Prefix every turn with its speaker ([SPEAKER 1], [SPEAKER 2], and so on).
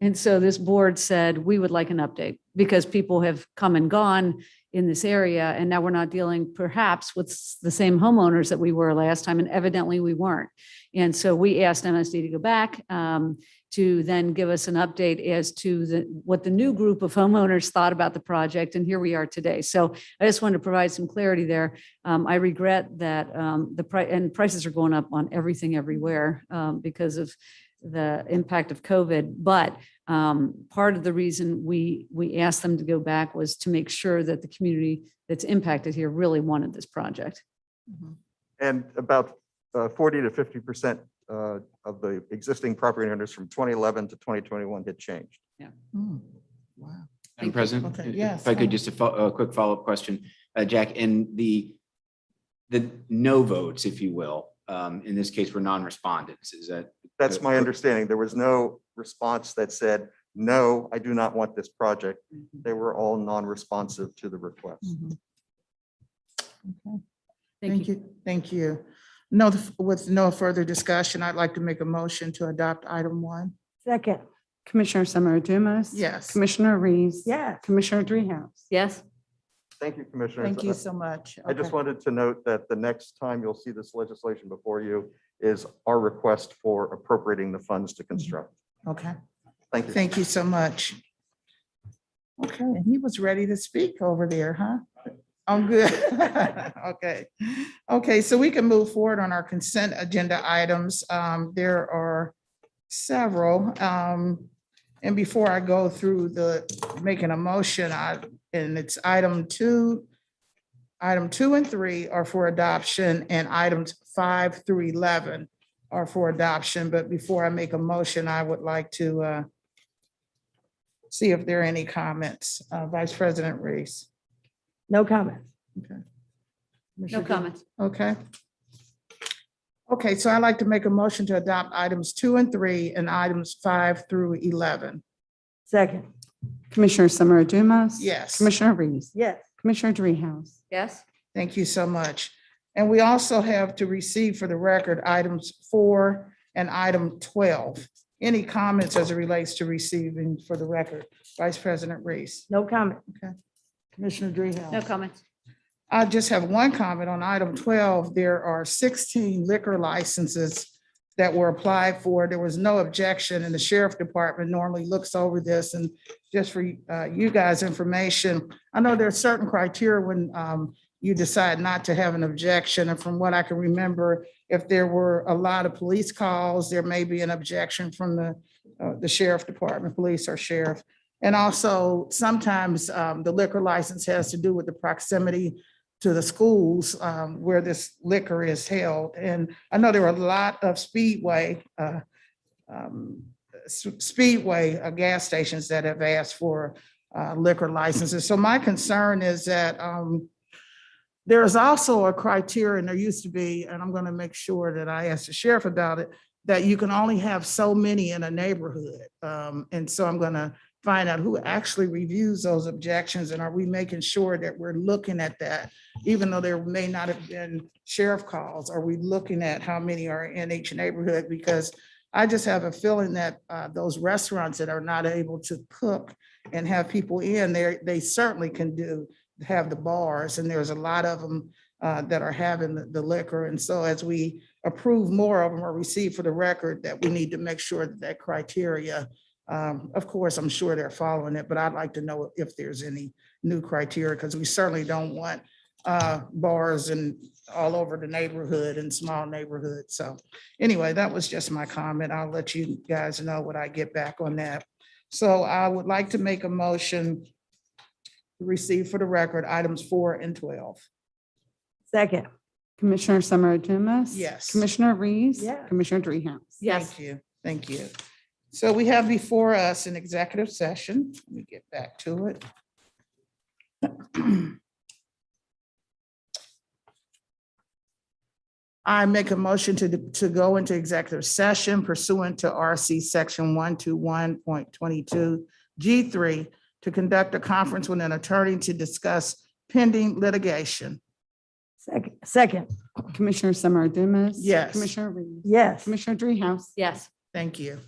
[SPEAKER 1] And so this board said, we would like an update because people have come and gone in this area. And now we're not dealing perhaps with s- the same homeowners that we were last time. And evidently we weren't. And so we asked MSD to go back um, to then give us an update as to the, what the new group of homeowners thought about the project. And here we are today. So I just wanted to provide some clarity there. Um, I regret that um, the price, and prices are going up on everything everywhere um, because of the impact of COVID. But um, part of the reason we, we asked them to go back was to make sure that the community that's impacted here really wanted this project.
[SPEAKER 2] Mm-hmm.
[SPEAKER 3] And about uh, 40 to 50 percent uh, of the existing property owners from 2011 to 2021 had changed.
[SPEAKER 2] Hmm. Wow.
[SPEAKER 1] Thank you.
[SPEAKER 4] Madam President,
[SPEAKER 2] Okay,
[SPEAKER 4] if-
[SPEAKER 2] yes,
[SPEAKER 4] if I could,
[SPEAKER 2] uh,
[SPEAKER 4] just a fo- a quick follow-up question, Uh, Jack, and the, the no votes, if you will, um, in this case, were non-respondents, is that?
[SPEAKER 3] That's my understanding. There was no response that said, no, I do not want this project. They were all non-responsive to the request.
[SPEAKER 2] Mhm. Okay.
[SPEAKER 1] Thank you.
[SPEAKER 2] Thank you. No, with no further discussion, I'd like to make a motion to adopt item one.
[SPEAKER 5] Second. Commissioner Summer Dumas.
[SPEAKER 2] Yes.
[SPEAKER 5] Commissioner Reese.
[SPEAKER 2] Yes.
[SPEAKER 5] Commissioner Dreehouse.
[SPEAKER 1] Yes?
[SPEAKER 3] Thank you, Commissioners.
[SPEAKER 2] Thank you so much.
[SPEAKER 3] I just
[SPEAKER 2] Okay.
[SPEAKER 3] wanted to note that the next time you'll see this legislation before you is our request for appropriating the funds to construct.
[SPEAKER 2] Okay,
[SPEAKER 3] Thank you.
[SPEAKER 2] thank you so much. Okay, and he was ready to speak over there, huh? I'm good. Okay. Okay, so we can move forward on our consent agenda items. Um, there are several. Um, and before I go through the, making a motion, I, and it's item two. Item two and three are for adoption and items five through eleven are for adoption. But before I make a motion, I would like to, uh, see if there are any comments. Uh, Vice President Reese.
[SPEAKER 5] No comments.
[SPEAKER 1] No comments.
[SPEAKER 2] Okay. Okay, so I'd like to make a motion to adopt items two and three and items five through 11.
[SPEAKER 5] Second. Commissioner Summer Dumas.
[SPEAKER 2] Yes,
[SPEAKER 5] Commissioner Reese. Yes. Commissioner Dreehouse.
[SPEAKER 1] Yes?
[SPEAKER 2] thank you so much. And we also have to receive for the record items four and item 12. Any comments as it relates to receiving for the record? Vice President Reese.
[SPEAKER 5] No comment.
[SPEAKER 2] Commissioner Dreehouse.
[SPEAKER 1] No comments.
[SPEAKER 2] I just have one comment on item twelve. There are sixteen liquor licenses that were applied for. There was no objection, and the sheriff department normally looks over this. And just for uh, you guys' information, I know there are certain criteria when um, you decide not to have an objection. And from what I can remember, if there were a lot of police calls, there may be an objection from the uh, the sheriff department, police or sheriff. And also, sometimes um, the liquor license has to do with the proximity to the schools um, where this liquor is held. And I know there were a lot of Speedway, uh, um, S- Speedway uh, gas stations that have asked for uh, liquor licenses. So my concern is that um, there is also a criteria, and there used to be, and I'm going to make sure that I ask the sheriff about it, that you can only have so many in a neighborhood. Um, And so I'm going to find out who actually reviews those objections, and are we making sure that we're looking at that even though there may not have been sheriff calls, are we looking at how many are in each neighborhood? Because I just have a feeling that uh, those restaurants that are not able to cook and have people in there, they certainly can do, have the bars, and there's a lot of them that are having the- the liquor. And so as we approve more of them or receive for the record, that we need to make sure that that criteria, um, of course, I'm sure they're following it, but I'd like to know if there's any new criteria, because we certainly don't want uh, bars and all over the neighborhood and small neighborhoods. So anyway, that was just my comment. I'll let you guys know what I get back on that. So I would like to make a motion to receive for the record items four and 12.
[SPEAKER 5] Second. Commissioner Summer Dumas.
[SPEAKER 2] Yes.
[SPEAKER 5] Commissioner Reese.
[SPEAKER 2] Yes.
[SPEAKER 5] Commissioner Dreehouse.
[SPEAKER 1] Yes.
[SPEAKER 2] Thank you. Thank you. So we have before us an executive session. Let me get back to it. I make a motion to, to go into executive session pursuant to RC Section 121.22 G3 to conduct a conference with an attorney to discuss pending litigation.
[SPEAKER 5] Second. Second. Commissioner Summer Dumas.
[SPEAKER 2] Yes.
[SPEAKER 5] Commissioner Reese.
[SPEAKER 6] Yes.
[SPEAKER 5] Commissioner Dreehouse.
[SPEAKER 1] Yes.
[SPEAKER 2] Thank you.